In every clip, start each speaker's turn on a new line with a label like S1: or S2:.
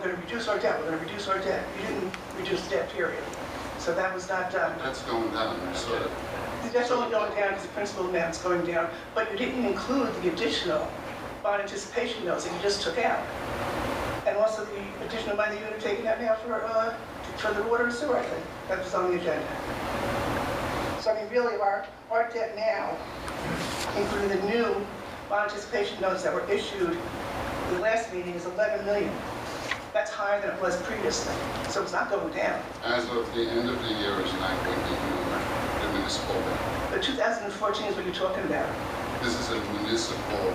S1: gonna reduce our debt, we're gonna reduce our debt. You didn't reduce debt, period. So that was not done.
S2: That's going down, so
S1: The debt's only going down because the principal amount's going down, but you didn't include the additional bond anticipation notes that you just took out. And also the additional money you're taking out now for, uh, for the water and sewer, I think, that was on the agenda. So I mean, really, our, our debt now, including the new bond anticipation notes that were issued the last meeting, is 11 million. That's higher than it was previously, so it's not going down.
S2: as of the end of the year is not going to be more the municipal debt.
S1: But 2014 is what you're talking about.
S2: This is a municipal,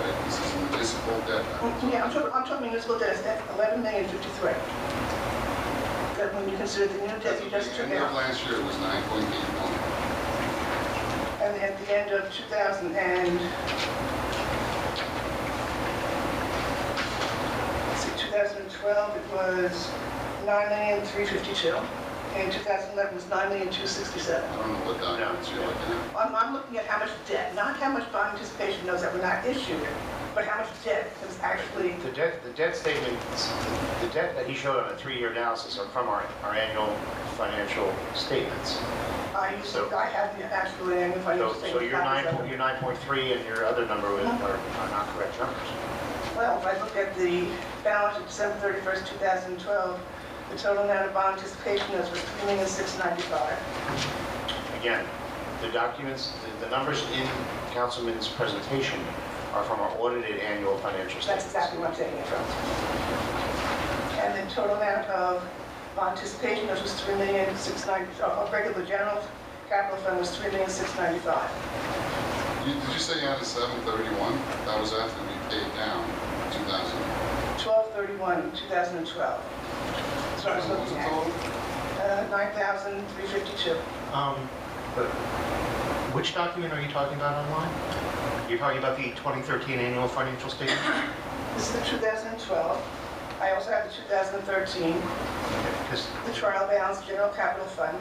S2: right, this is a municipal debt.
S1: Yeah, I'm talking, I'm talking municipal debt, that's eleven million fifty-three. That when you consider the new
S2: As
S1: debt you
S2: of
S1: just
S2: the
S1: took
S2: end of
S1: out,
S2: last year it was nine point eight million.
S1: and at the end of two thousand and... Let's see, two thousand and twelve, it was nine million three fifty-two, and two thousand and eleven was nine million two sixty-seven.
S2: I don't know what documents you're looking at.
S1: I'm, I'm looking at how much debt, not how much bond anticipation notes that were not issued, but how much debt was actually,
S3: The debt, the debt statement, the debt that he showed on a three-year analysis are from our, our annual financial statements.
S1: I used, to- I have the actual annual financial
S3: So,
S1: statement.
S3: so your nine,
S1: copies of it.
S3: po- your nine point three and your other number was-
S1: Uh-huh.
S3: are are not correct numbers.
S1: Well, if I look at the balance of December 31st, 2012, the total amount of bond anticipation notes was $3,695.
S3: Again, the documents, the, the numbers in Councilman's presentation are from our audited annual financial
S1: That's
S3: statements.
S1: exactly what I'm saying, And the total amount of bond anticipation notes was $3,690, uh, of regular general capital fund was $3,695.
S2: You, did you say you had a seven thirty-one? That was after we paid down two thousand.
S1: 12/31, 2012. So I was
S2: What was
S1: looking
S2: the
S1: at
S2: total?
S1: uh, 9,352.
S3: Um, but which document are you talking about online? You're talking about the 2013 annual financial statement?
S1: This is the 2012. I also have the 2013.
S3: Because
S1: the trial balance general capital fund,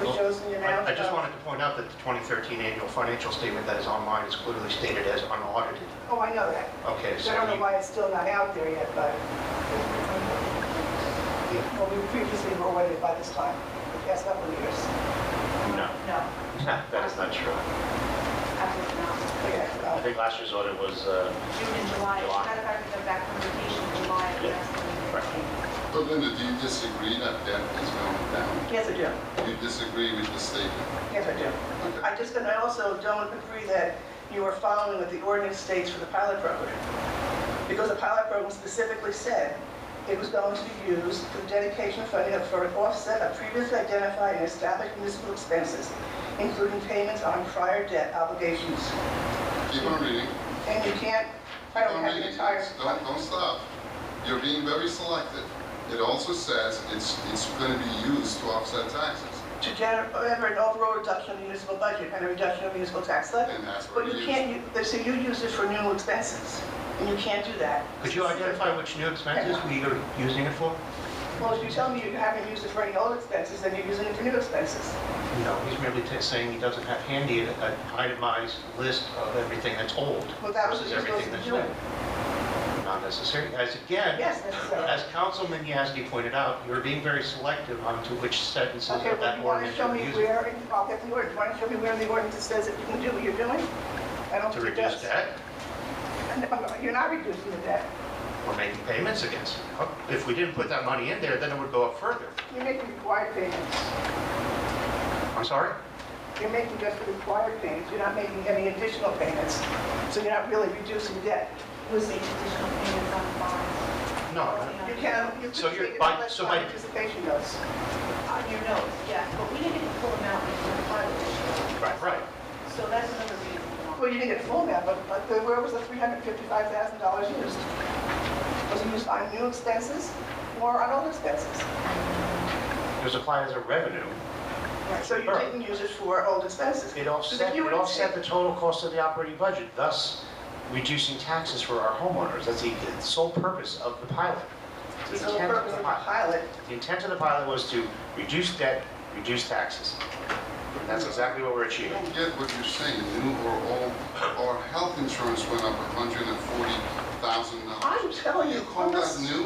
S1: which shows the amount
S3: Oh, I I just
S1: of-
S3: wanted to point out that the 2013 annual financial statement that is online is clearly stated as unaudited.
S1: Oh, I know that.
S3: Okay,
S1: I
S3: so
S1: don't know
S3: you-
S1: why it's still not out there yet, but, well, we previously were awarded by this time, the past couple of years.
S3: no,
S4: No,
S3: that is not true.
S4: absolutely not.
S1: Yeah,
S3: I
S1: well,
S3: think last year's audit was, uh,
S4: June and July, as a
S3: July.
S4: matter of fact, we got back from vacation in July of
S3: Yeah.
S4: last year.
S2: But Linda, do you disagree that debt is going down?
S1: Yes, I do.
S2: You disagree with the statement?
S1: Yes, I do. I just, and I also don't agree that you are following what the ordinance states for the pilot program. Because the pilot program specifically said it was going to be used for dedication funding for an offset of previously identified and established municipal expenses, including payments on prior debt obligations.
S2: Keep on reading.
S1: And you can't, I don't
S2: Don't
S1: have
S2: read
S1: the
S2: it.
S1: entire,
S2: Don't, don't stop. You're being very selective. It also says it's, it's gonna be used to offset taxes.
S1: to generate an overall reduction of the municipal budget and a reduction of municipal tax levy.
S2: And that's
S1: But
S2: what we
S1: you
S2: use.
S1: can't, u- they say you use it for new expenses, and you can't do that.
S3: could you identify which new expenses we are using it for?
S1: Well, if you tell me you haven't used it for any old expenses, then you're using it for new expenses.
S3: No, he's merely t- saying he doesn't have handy an itemized list of everything that's old
S1: Well, that was what
S3: versus
S1: you're supposed
S3: everything
S1: to be doing.
S3: that's new. Not necessary, as again,
S1: Yes, necessarily.
S3: As Councilman Yasky pointed out, you're being very selective on to which sentences of
S1: Okay, well,
S3: that
S1: you want to
S3: ordinance
S1: show
S3: you're
S1: me
S3: using
S1: where, in- I'll get the ordinance, you want to show me where in the ordinance it says that you can do what you're doing? I don't
S3: to
S1: think it does.
S3: reduce debt
S1: No, You're not reducing the debt.
S3: or making payments against. it. If we didn't put that money in there, then it would go up further.
S1: You're making required payments.
S3: I'm sorry?
S1: You're making just the required payments, you're not making any additional payments. So you're not really reducing debt.
S4: Was the additional payments on the bonds,
S3: No.
S1: You can, you could
S3: So you're-
S1: treat it
S3: by-
S1: less
S3: so
S1: by
S3: by-
S1: anticipation notes.
S4: on your notes, yes, but we didn't get the full amount we were part of this year.
S3: Right, right.
S4: So that's another reason. why.
S1: Well, you didn't get full amount, but, but the- where was the $355,000 used? Was it used on new expenses or on old expenses?
S3: It was applied as a revenue.
S1: So you didn't use it for old expenses?
S3: It
S1: So
S3: offset,
S1: if you
S3: it
S1: were to
S3: offset
S1: take-
S3: the total cost of the operating budget, thus reducing taxes for our homeowners. That's the sole purpose of the pilot.
S1: The sole purpose of the pilot,
S3: The intent of the pilot was to reduce debt, reduce taxes. That's exactly what we're
S2: You
S3: achieving.
S2: don't get what you're saying, new or old. Our health insurance went up hundred and forty thousand dollars.
S1: I'm telling you.
S2: You call that
S1: Congress-
S2: new?